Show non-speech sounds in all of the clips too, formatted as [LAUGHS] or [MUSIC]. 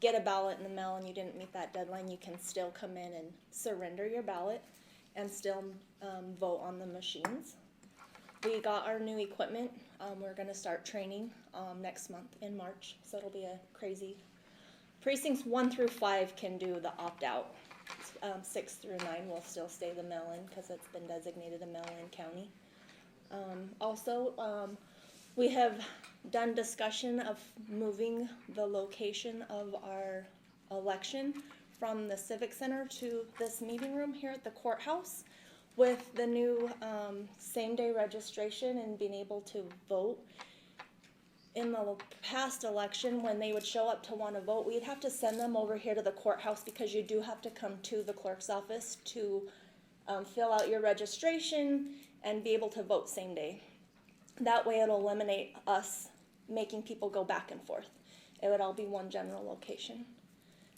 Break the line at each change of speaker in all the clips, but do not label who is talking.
get a ballot in the mail and you didn't meet that deadline, you can still come in and surrender your ballot and still, um, vote on the machines. We got our new equipment, um, we're gonna start training, um, next month in March, so it'll be a crazy. Precincts one through five can do the opt-out, um, six through nine will still stay the mail-in, cause it's been designated a mail-in county. Um, also, um, we have done discussion of moving the location of our election from the Civic Center to this meeting room here at the courthouse with the new um, same-day registration and being able to vote. In the past election, when they would show up to want to vote, we'd have to send them over here to the courthouse because you do have to come to the clerk's office to um, fill out your registration and be able to vote same day. That way, it'll eliminate us making people go back and forth. It would all be one general location.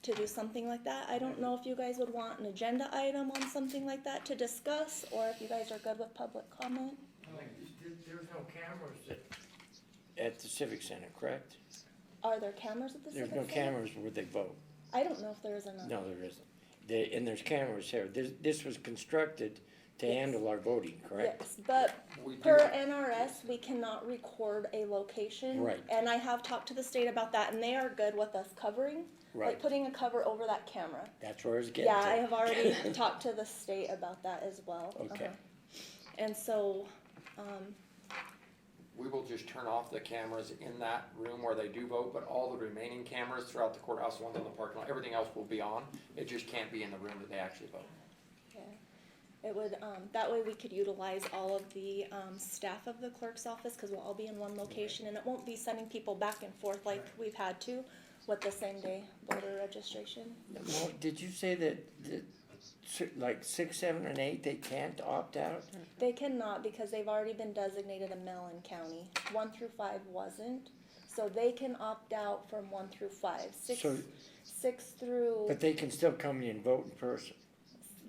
To do something like that, I don't know if you guys would want an agenda item on something like that to discuss, or if you guys are good with public comment.
Like, there- There's no cameras that,
At the Civic Center, correct?
Are there cameras at the
There's
civic
no
center?
cameras where they vote.
I don't know if there is or not.
No, there isn't. There- and there's cameras here. This, this was constructed to
Yes.
handle our voting, correct?
Yes, but
We do,
Per NRS, we cannot record a location.
Right.
And I have talked to the state about that, and they are good with us covering, like
Right.
putting a cover over that camera.
That's where I was getting
Yeah, I
to.
have already
[LAUGHS]
talked to the state about that as well.
Okay.
Uh-huh. And so, um,
we will just turn off the cameras in that room where they do vote, but all the remaining cameras throughout the courthouse, ones on the parking lot, everything else will be on. It just can't be in the room that they actually vote.
it would, um, that way we could utilize all of the, um, staff of the clerk's office, cause we'll all be in one location, and it won't be sending people back and forth like we've had to with the same day voter registration.
Well, Did you say that, that, si- like six, seven, and eight, they can't opt out?
They cannot because they've already been designated a Mellon county. One through five wasn't, so they can opt out from one through five. Six,
So-
six through,
But they can still come in and vote in person.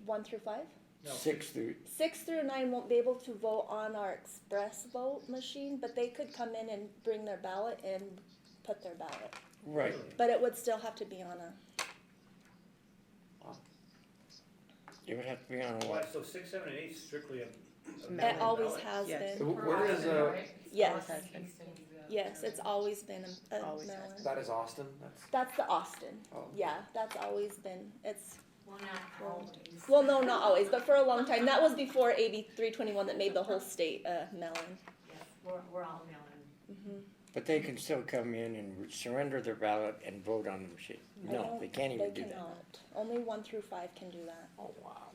one through five?
No.
Six through,
Six through nine won't be able to vote on our express vote machine, but they could come in and bring their ballot and put their ballot.
right.
But it would still have to be on a,
It would have to be on a
Why,
what?
so six, seven, and eight is strictly a. a
it
mail-in
always
ballot?
has
Yes.
been.
Wh- Where is, uh,
Yes, yes, it's always been a a
Always has
Mellon.
that is Austin? That's,
That's the Austin.
oh.
Yeah, that's always been, it's
Well, not always.
Well, no, oh, not always, but for a long time. That was before AB three twenty one that made the whole state uh, melon.
Yes, We're, we're all mailing.
But they can still come in and surrender their ballot and vote on the machine.
I
No,
don't-
they can't
They
even do that.
cannot. Only one through five can do that.
Oh, wow.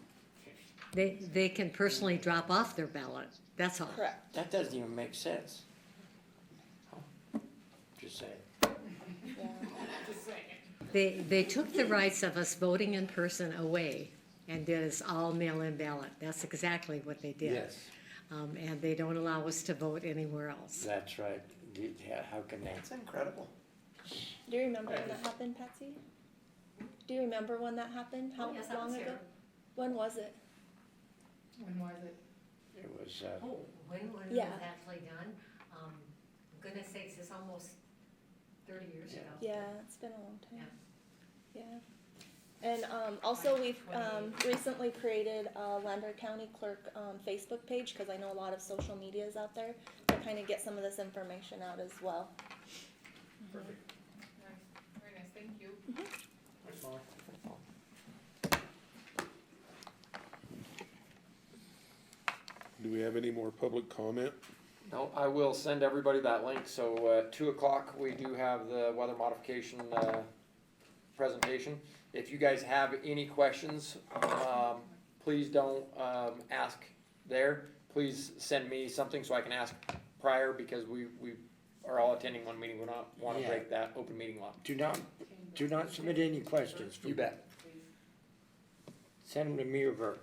They, they can personally drop off their ballot, that's all.
Correct.
That doesn't even make sense. Just saying.
Yeah.
They, they took the rights of us voting in person away and did us all mail-in ballot. That's exactly what they did. Um, and they don't allow us to vote anywhere else.
That's right. You- yeah, How can they?
That's incredible.
Do you remember when that happened, Patsy? Do you remember when that happened? How
Oh, yes, that
long
was
ago?
here.
When was it?
When was it?
It was, uh,
Oh, when, when it was
Yeah.
actually done, um, goodness sakes, it's almost thirty years ago.
Yeah, it's been a long time. Yeah. And um, also, we've um, recently created a Lander County Clerk um, Facebook page because I know a lot of social media is out there to kind of get some of this information out as well.
Perfect.
Very nice, thank you.
Thanks, Molly.
Do we have any more public comment?
No, I will send everybody that link, so, uh, two o'clock, we do have the weather modification, uh, presentation. If you guys have any questions, um, please don't, um, ask there. Please send me something so I can ask prior, because we, we are all attending one meeting, we don't wanna
Yeah.
break that open meeting law.
do not, do not submit any questions. for-
You bet.
Send them to me or Bert.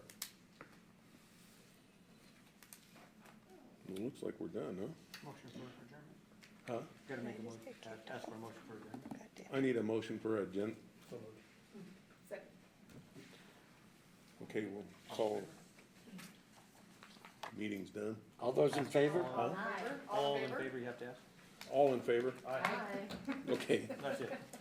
It looks like we're done, huh?
motion for adjournment?
Huh?
Gotta make a motion, uh, ask for a motion for adjournment.
I need a motion for agen,
So moved.
okay, we'll call. Meeting's done.
All those in favor?
Aye.
All in favor, you have to ask?
All in favor?
Aye.
Okay.
That's it.